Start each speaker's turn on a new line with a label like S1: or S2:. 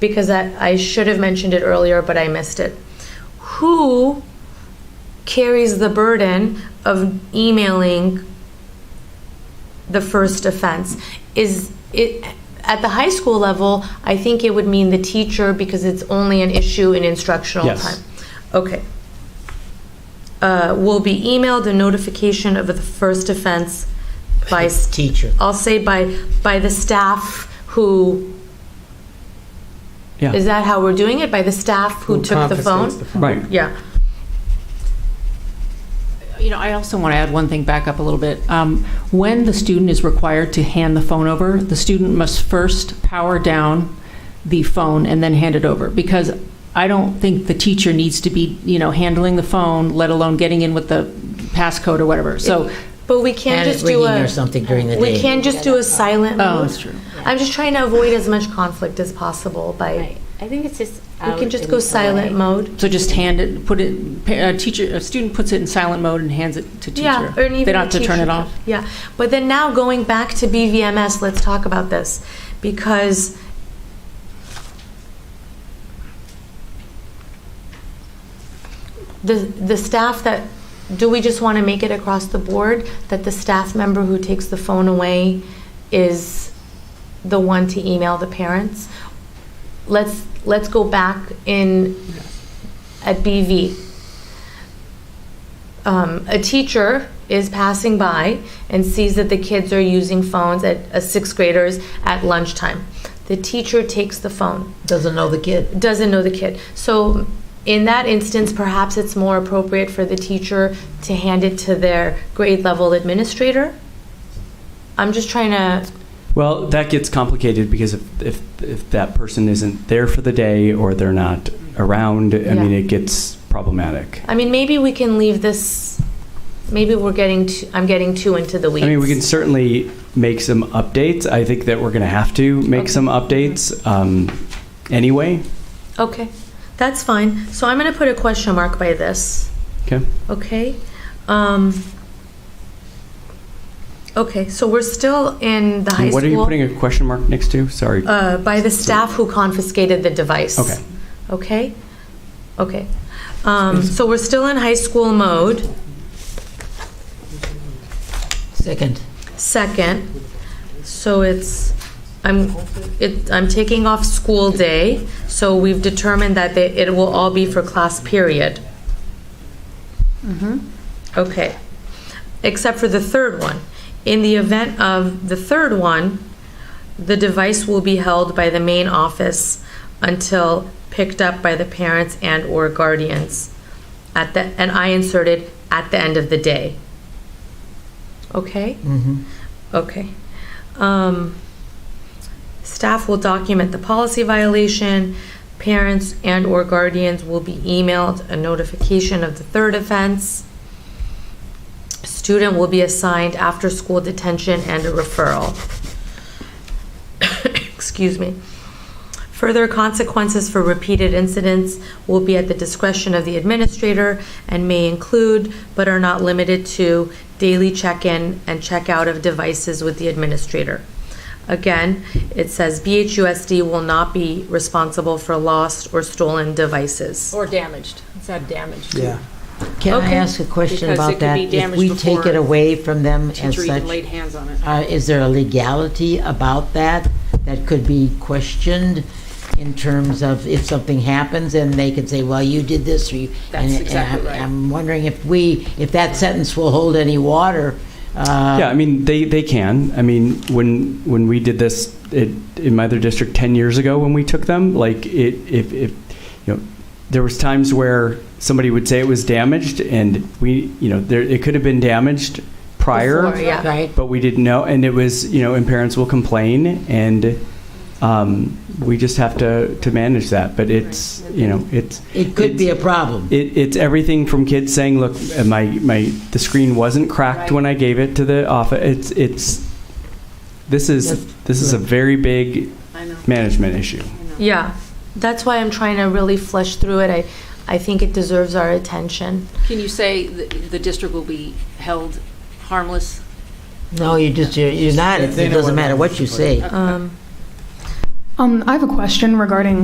S1: because I, I should have mentioned it earlier, but I missed it. Who carries the burden of emailing the first offense? Is it, at the high school level, I think it would mean the teacher because it's only an issue in instructional
S2: Yes.
S1: time. Okay. Uh, will be emailed a notification of the first offense by s-
S3: Teacher.
S1: I'll say by by the staff who
S2: Yeah.
S1: is that how we're doing it? By the staff who, took the phone?
S4: confiscates the
S2: Right.
S1: Yeah.
S5: You know, I also want to add one thing back up a little bit. Um, When the student is required to hand the phone over, the student must first power down the phone and then hand it over, because I don't think the teacher needs to be, you know, handling the phone, let alone getting in with the passcode or whatever. So,
S1: But we can't
S3: And it's
S1: just do
S3: ringing
S1: a
S3: or something during the
S1: we
S3: day.
S1: can't just do a silent
S5: Oh,
S1: mode.
S5: that's true.
S1: I'm just trying to avoid as much conflict as possible by
S6: Right. I think it's just.
S1: we can just go silent mode.
S5: so just hand it, put it, pa- a teacher, a student puts it in silent mode and hands it to teacher.
S1: Yeah, or even
S5: They don't have
S1: the
S5: to turn
S1: teacher.
S5: it off.
S1: Yeah, but then now going back to BVMS, let's talk about this because the the staff that do we just want to make it across the board that the staff member who takes the phone away is the one to email the parents? Let's let's go back in at BV um, a teacher is passing by and sees that the kids are using phones at uh, sixth graders at lunchtime. The teacher takes the phone,
S3: Doesn't know the kid.
S1: doesn't know the kid. So, in that instance, perhaps it's more appropriate for the teacher to hand it to their grade level administrator. I'm just trying to,
S2: Well, that gets complicated because if, if, if that person isn't there for the day or they're not around, I mean,
S1: Yeah.
S2: it gets problematic.
S1: I mean, maybe we can leave this, maybe we're getting, too, I'm getting too into the weeds.
S2: I mean, we can certainly make some updates. I think that we're going to have to make
S1: Okay.
S2: some updates um, anyway.
S1: Okay, that's fine. So, I'm going to put a question mark by this.
S2: Okay.
S1: Okay. Um, okay, so we're still in the high
S2: And what are you
S1: school.
S2: putting a question mark next to? Sorry.
S1: uh, by the staff who confiscated the device.
S2: Okay.
S1: Okay. Okay. Um, so we're still in high school mode.
S3: Second.
S1: Second. So it's I'm it I'm taking off school day. So we've determined that they, it will all be for class period. Okay. Except for the third one. In the event of the third one, the device will be held by the main office until picked up by the parents and or guardians at the and I inserted at the end of the day. Okay?
S3: Mm-hmm.
S1: Okay. Um, Staff will document the policy violation. Parents and/or guardians will be emailed a notification of the third offense. Student will be assigned after-school detention and a referral. Excuse me. Further consequences for repeated incidents will be at the discretion of the administrator and may include, but are not limited to, daily check-in and check-out of devices with the administrator. Again, it says BHUSD will not be responsible for lost or stolen devices.
S6: Or damaged. It's not damaged.
S4: Yeah.
S3: Can I
S1: Okay.
S3: ask a question
S6: Because it
S3: about
S6: could
S3: that?
S6: be
S3: If
S6: damaged
S3: we take it
S6: before
S3: away from them as
S6: Teacher even
S3: such,
S6: laid hands on it.
S3: uh, is there a legality about that that could be questioned in terms of if something happens and they can say, well, you did this or you.
S6: That's
S3: and- and
S6: exactly
S3: I'm-
S6: right.
S3: I'm wondering if we, if that sentence will hold any water. uh, Um,
S2: Yeah, I mean, they, they can. I mean, when when we did this it, in my other district 10 years ago when we took them, like, it, if, if, you know, there was times where somebody would say it was damaged and we, you know, there, it could have been damaged prior.
S1: Before, yeah.
S3: Right?
S2: But we didn't know, and it was, you know, and parents will complain, and um, we just have to, to manage that. But it's, you know, it's,
S3: It could be a problem.
S2: it, it's everything from kids saying, "Look, uh, my my the screen wasn't cracked when I gave it to the office." It's it's this
S3: Yes.
S2: is this is a very big management issue.
S1: Yeah, that's why I'm trying to really flesh through it. I, I think it deserves our attention.
S6: Can you say the, the district will be held harmless?
S3: No, you just, you're- you're not, it
S4: They know what
S3: doesn't matter what you
S4: happens.
S3: say.
S1: Um,
S7: Um, I have a question regarding